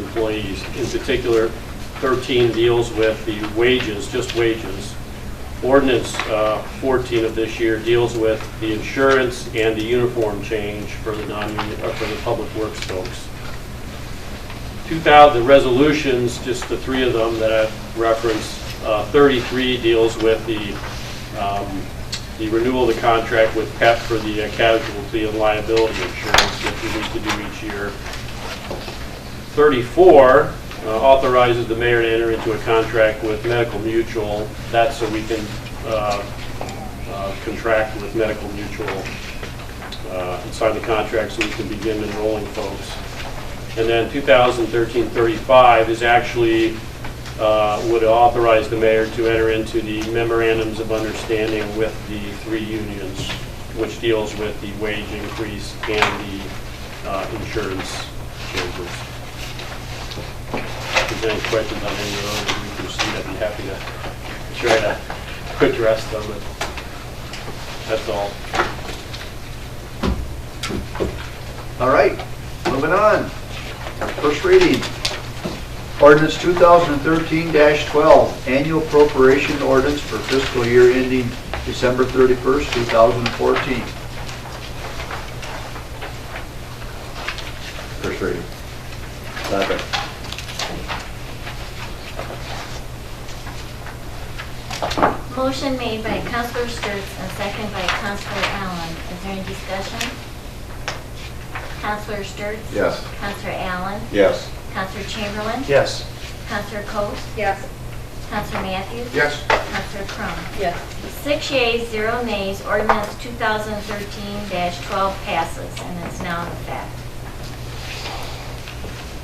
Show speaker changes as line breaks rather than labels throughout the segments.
employees. In particular, 13 deals with the wages, just wages. Ordinance uh, 14 of this year deals with the insurance and the uniform change for the non, uh, for the public works folks. 2000, the resolutions, just the three of them that I referenced, uh, 33 deals with the, um, the renewal of the contract with PEP for the uh, casualty and liability insurance that we need to do each year. 34 uh, authorizes the mayor to enter into a contract with Medical Mutual. That's so we can uh, uh, contract with Medical Mutual uh, and sign the contract so we can begin enrolling folks. And then 2013-35 is actually, uh, would authorize the mayor to enter into the memorandums of understanding with the three unions, which deals with the wage increase and the uh, insurance changes. If there's any questions on any of those, we can see, I'd be happy to try to address them, but that's all.
All right, moving on. First reading. Ordinance 2013-12, annual appropriation ordinance for fiscal year ending December 31st, 2014. First reading. Second.
Motion made by Counselor Sturts and second by Counselor Allen. Is there any discussion? Counselor Sturts?
Yes.
Counselor Allen?
Yes.
Counselor Chamberlain?
Yes.
Counselor Coats?
Yes.
Counselor Matthews?
Yes.
Counselor Crum?
Yes.
Six yeas, zero nays, ordinance 2013-12 passes and is now in effect.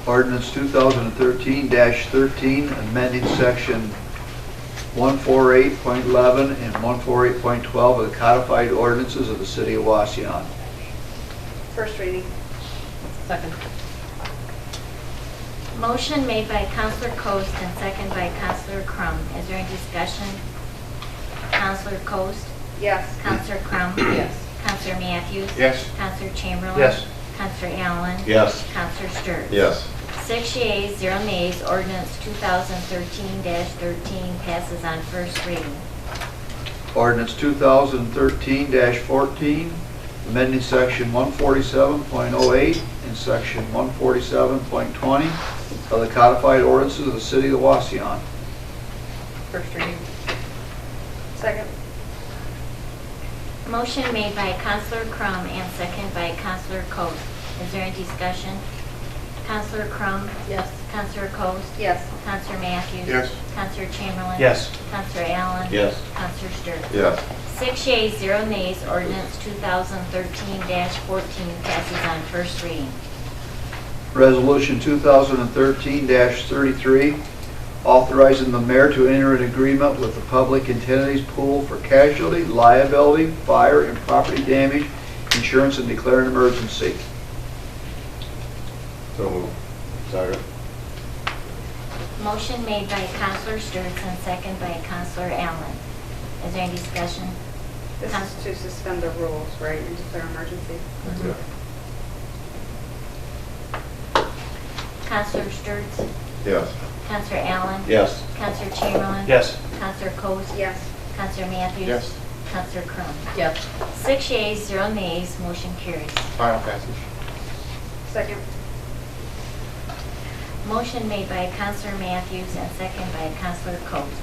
Ordinance 2013-13, amending section 148.11 and 148.12 of the codified ordinances of the city of Waseon.
First reading. Second.
Motion made by Counselor Coats and second by Counselor Crum. Is there any discussion? Counselor Coats?
Yes.
Counselor Crum?
Yes.
Counselor Matthews?
Yes.
Counselor Chamberlain?
Yes.
Counselor Allen?
Yes.
Counselor Sturts?
Yes.
Six yeas, zero nays, ordinance 2013-13 passes on first reading.
Ordinance 2013-14, amending section 147.08 and section 147.20 of the codified ordinances of the city of Waseon.
First reading. Second.
Motion made by Counselor Crum and second by Counselor Coats. Is there any discussion? Counselor Crum?
Yes.
Counselor Coats?
Yes.
Counselor Matthews?
Yes.
Counselor Chamberlain?
Yes.
Counselor Allen?
Yes.
Counselor Sturts?
Yes.
Six yeas, zero nays, ordinance 2013-14 passes on first reading.
Resolution 2013-33, authorizing the mayor to enter an agreement with the Public Entities Pool for casualty, liability, fire, and property damage insurance and declare an emergency.
So moved. Second.
Motion made by Counselor Sturts and second by Counselor Allen. Is there any discussion?
This is to suspend the rules, right, and declare emergency?
Yeah.
Counselor Sturts?
Yes.
Counselor Allen?
Yes.
Counselor Chamberlain?
Yes.
Counselor Coats?
Yes.
Counselor Matthews?
Yes.
Counselor Crum?
Yes.
Six yeas, zero nays, motion carries.
Final passage.
Second?
Motion made by Counselor Matthews and second by Counselor Coats.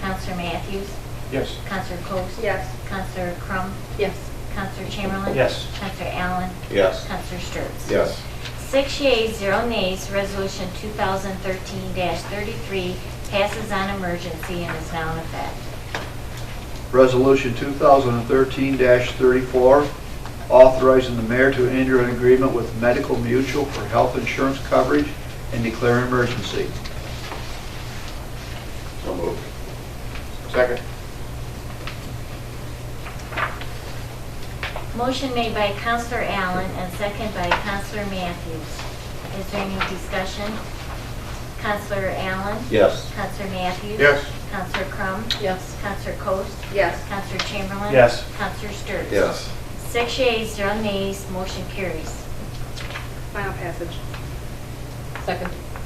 Counselor Matthews?
Yes.
Counselor Coats?
Yes.
Counselor Crum?
Yes.
Counselor Chamberlain?
Yes.
Counselor Allen?
Yes.
Counselor Sturts?
Yes.
Six yeas, zero nays, resolution 2013-33 passes on emergency and is now in effect.
Resolution 2013-34, authorizing the mayor to enter an agreement with Medical Mutual for health insurance coverage and declare an emergency.
So moved. Second.
Motion made by Counselor Allen and second by Counselor Matthews. Is there any discussion? Counselor Allen?
Yes.
Counselor Matthews?
Yes.
Counselor Crum?
Yes.
Counselor Coats?
Yes.
Counselor Chamberlain?
Yes.
Counselor Sturts?
Yes.
Six yeas, zero nays, motion carries.
Final passage?
Second.